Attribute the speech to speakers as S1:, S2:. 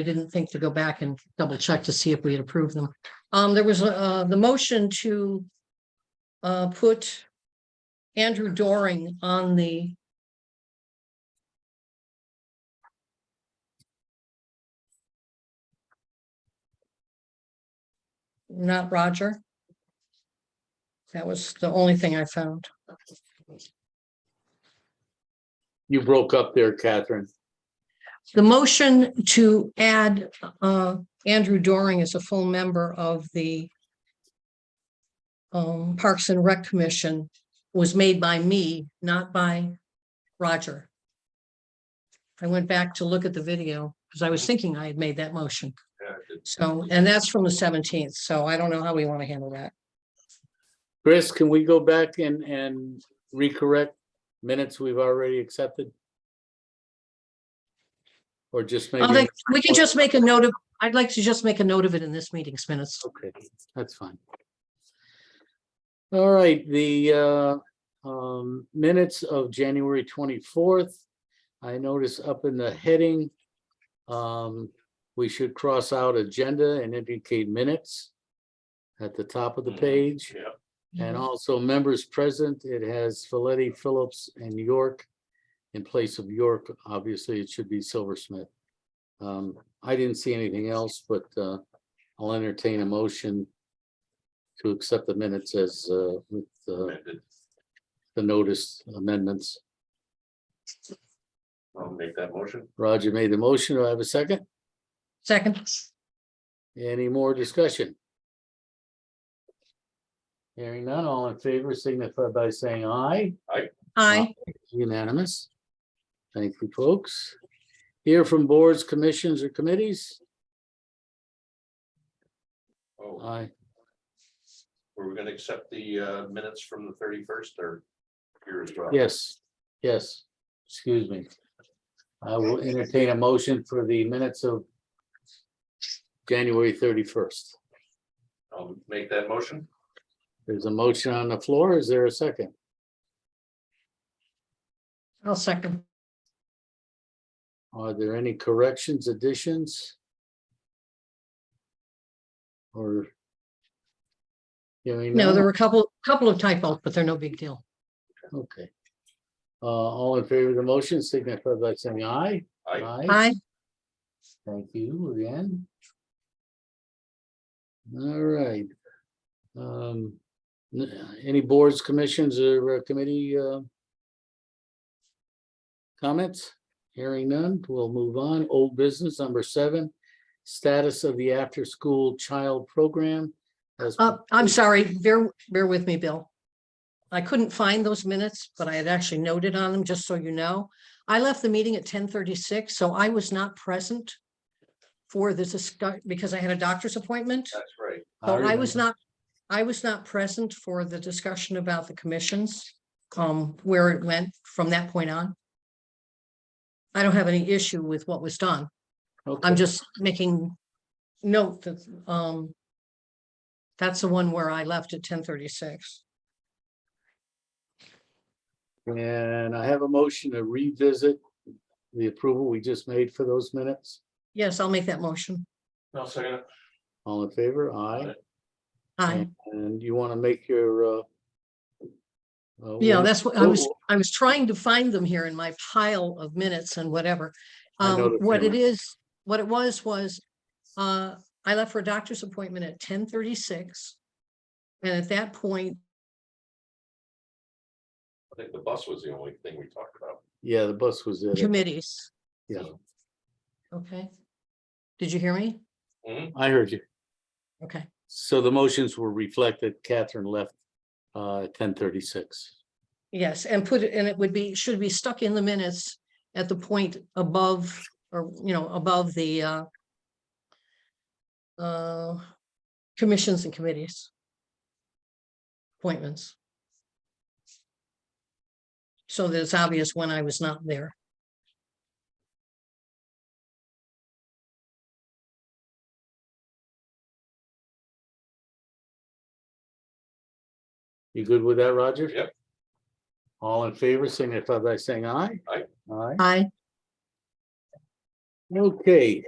S1: I didn't think to go back and double check to see if we had approved them. Um, there was, uh, the motion to uh, put Andrew Doring on the not Roger. That was the only thing I found.
S2: You broke up there, Catherine.
S1: The motion to add uh Andrew Doring as a full member of the um Parks and Rec Commission was made by me, not by Roger. I went back to look at the video because I was thinking I had made that motion. So, and that's from the seventeenth, so I don't know how we want to handle that.
S2: Chris, can we go back and, and recorrect minutes we've already accepted? Or just
S1: I
S2: maybe,
S1: think we can just make a note of, I'd like to just make a note of it in this meeting's minutes.
S2: okay, that's fine. All right, the uh, um, minutes of January twenty-fourth. I notice up in the heading, um, we should cross out agenda and indicate minutes at the top of the page.
S3: Yeah,
S2: And
S1: Mm-hmm.
S2: also members present, it has Folletti, Phillips and York. In place of York, obviously, it should be Silversmith. Um, I didn't see anything else, but uh, I'll entertain a motion to accept the minutes as uh, with uh,
S3: amended.
S2: the notice amendments.
S3: I'll make that motion.
S2: Roger made the motion. Do I have a second?
S1: Second,
S2: Any more discussion? Hearing none, all in favor signify by saying aye.
S1: aye.
S2: Unanimous. Thank you, folks. Hear from boards, commissions, or committees?
S3: Oh,
S2: Aye.
S3: were we gonna accept the uh, minutes from the thirty-first or here as well?
S2: Yes, yes, excuse me. I will entertain a motion for the minutes of January thirty-first.
S3: I'll make that motion.
S2: There's a motion on the floor. Is there a second?
S1: I'll second.
S2: Are there any corrections, additions? Or? Hearing
S1: No,
S2: none?
S1: there were a couple, couple of typos, but they're no big deal.
S2: Okay. Uh, all in favor of the motion signify by saying aye.
S3: Aye.
S1: Aye,
S2: Thank you again. All right. Um, n- any boards, commissions or uh, committee, uh, comments? Hearing none, we'll move on. Old business number seven, status of the after-school child program. as-
S1: uh, I'm sorry, bear, bear with me, Bill. I couldn't find those minutes, but I had actually noted on them, just so you know. I left the meeting at ten thirty-six, so I was not present for this discuss, because I had a doctor's appointment.
S3: That's right.
S1: So oh, I was
S2: remember.
S1: not, I was not present for the discussion about the commissions, um, where it went from that point on. I don't have any issue with what was done.
S2: Okay.
S1: I'm just making note that, um, that's the one where I left at ten thirty-six.
S2: And I have a motion to revisit the approval we just made for those minutes.
S1: Yes, I'll make that motion.
S3: I'll second it.
S2: All in favor? Aye.
S1: I,
S2: And you want to make your, uh, uh,
S1: yeah,
S2: what-
S1: that's what I was,
S2: Well-
S1: I was trying to find them here in my pile of minutes and whatever.
S2: I know
S1: Um,
S2: the
S1: what it
S2: feeling.
S1: is, what it was, was, uh, I left for a doctor's appointment at ten thirty-six. And at that point,
S3: I think the bus was the only thing we talked about.
S2: Yeah, the bus was in it.
S1: committees,
S2: Yeah,
S1: okay? Did you hear me?
S2: I heard you.
S1: Okay,
S2: So the motions were reflected. Catherine left, uh, ten thirty-six.
S1: yes, and put it, and it would be, should be stuck in the minutes at the point above, or, you know, above the, uh, uh, commissions and committees. Appointments. So that it's obvious when I was not there.
S2: You good with that, Roger?
S3: Yep.
S2: All in favor, signify by saying aye.
S3: Aye.
S2: Aye.
S1: I,
S2: Okay,